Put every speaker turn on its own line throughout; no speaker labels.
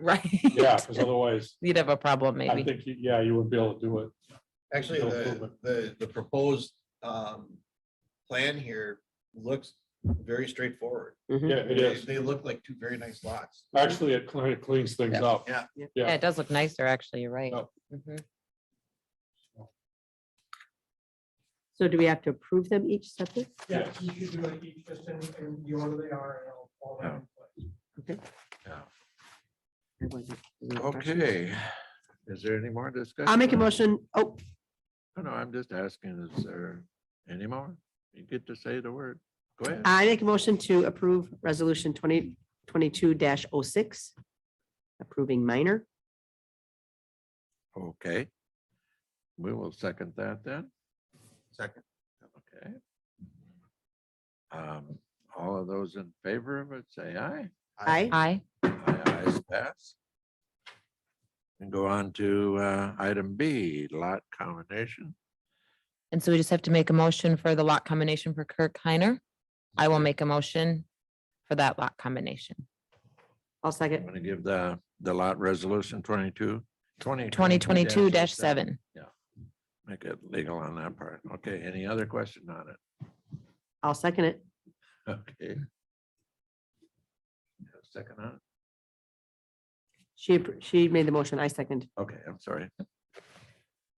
right?
Yeah, because otherwise,
You'd have a problem
I
maybe.
think, you- yeah, you would be able to do it.
Actually,
No
the,
improvement.
the, the proposed, um, plan here looks very straightforward.
Mm-hmm.
Yeah, it
They,
is.
they look like two very nice lots.
Actually, it cle- it cleans things
Yeah.
up.
Yeah.
Yeah, it does look nicer, actually, you're right.
Oh.
Mhm.
So do we have to approve them each separate?
Yeah,
Yes.
you should do it each just in, in the order they are and all- all that in place.
Or was it- was it a question?
Okay, is there any more discussion?
I'll make a motion. Oh,
No, no, I'm just asking, is there any more? You get to say the word. Go ahead.
I make a motion to approve resolution twenty twenty-two 6 approving minor.
Okay. We will second that then.
Second.
Okay. Um, all of those in favor of it, say aye.
Aye.
Aye,
Aye, ayes, pass. And go on to uh, item B, lot combination.
and so we just have to make a motion for the lot combination for Kirk Heiner. I will make a motion for that lot combination.
I'll
I'm
second.
going to give the, the lot resolution 22, 20.
Twenty twenty-two seven.
Make it legal on that part. Okay, any other question on it?
I'll second it.
Okay. Second on, it?
She, appro- she made the motion. I second.
okay, I'm sorry.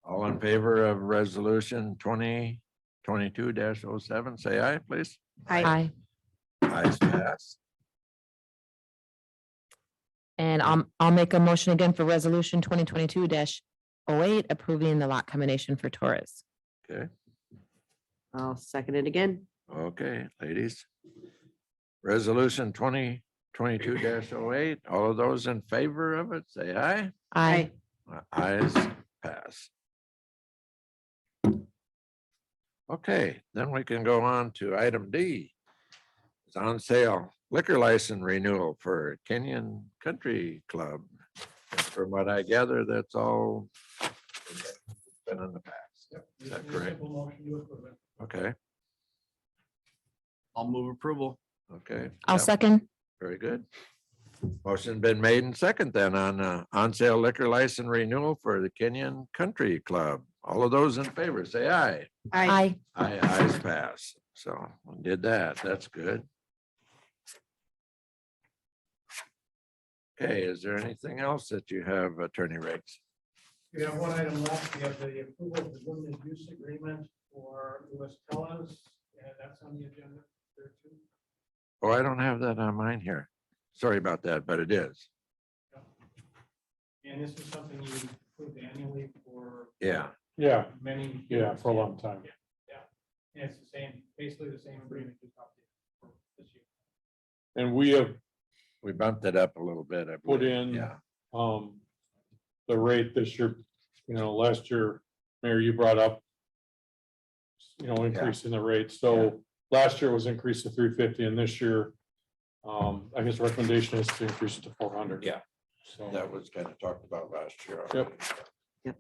All in favor of resolution twenty twenty-two 7 say aye, please.
I,
Aye,
Ayes pass.
and I'll, I'll make a motion again for resolution twenty twenty-two 8 approving the lot combination for Torres.
Okay,
I'll second it again.
okay, ladies. Resolution twenty twenty-two 8 all of those in favor of it, say aye.
Aye,
Uh, Ayes pass. Okay, then we can go on to item D. It's on sale liquor license renewal for Kenyon Country Club. And From what I gather, that's all. Been in the past. Is that
Just a
correct?
simple motion to approve it.
Okay,
I'll move approval.
okay.
I'll
Yep,
second.
Very good. Motion been made and second then on uh, on sale liquor license renewal for the Kenyon Country Club. All of those in favor, say aye.
I,
Aye,
I, eyes pass, so we did that, that's good. Okay, is there anything else that you have, Attorney Riggs?
We have one item left. We have the approval of the limited use agreement for Louis Teles, and that's on the agenda there too.
Oh, I don't have that on mine here. Sorry about that, but it is,
And this is something you approve annually for
yeah,
Yeah,
many.
yeah, for a long time.
And it's the same, basically the same agreement. just updated for this year.
And we have
we bumped it up a little bit. I
put
believe.
in
Yeah,
um, the rate this year, you know, last year, Mayor, you brought up, you know, increasing the rate. So last year was increased to three fifty and this year, um, I guess the recommendation is to increase it to four hundred.
Yeah.
So,
that was kind of talked about last year.
Yep.
already.
Yep.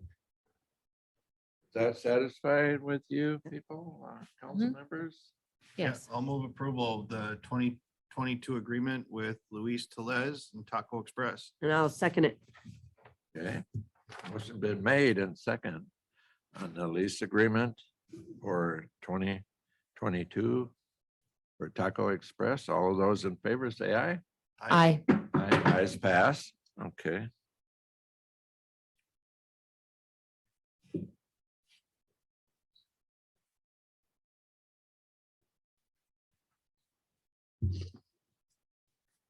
Is That satisfied with you people, uh, council members?
Yeah,
yes.
I'll move approval of the twenty twenty-two agreement with Luis Telez and Taco Express.
and I'll second it.
Okay, motion been made and second on the lease agreement for twenty twenty-two for Taco Express. All of those in favor say aye.
Aye.
Aye. Ayes pass. Okay.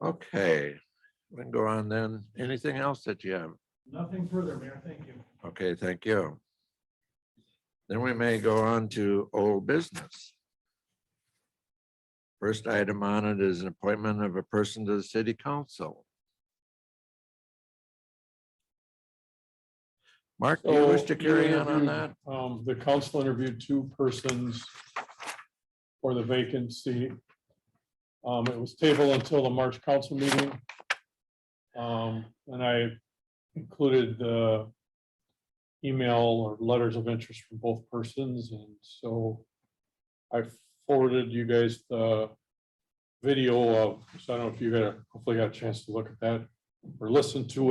Okay, we can go on then. Anything else that you have?
Nothing further, Mayor. Thank you.
Okay, thank you. Then we may go on to old business. First item on it is an appointment of a person to the city council. Mark, do you wish to
So,
carry on on
interviewed,
that?
Um, the council interviewed two persons for the vacancy. Um, it was tabled until the March council meeting. Um, and I included the email or letters of interest from both persons, and so I forwarded you guys the video of, so I don't know if you got, a- hopefully got a chance to look at that or listen to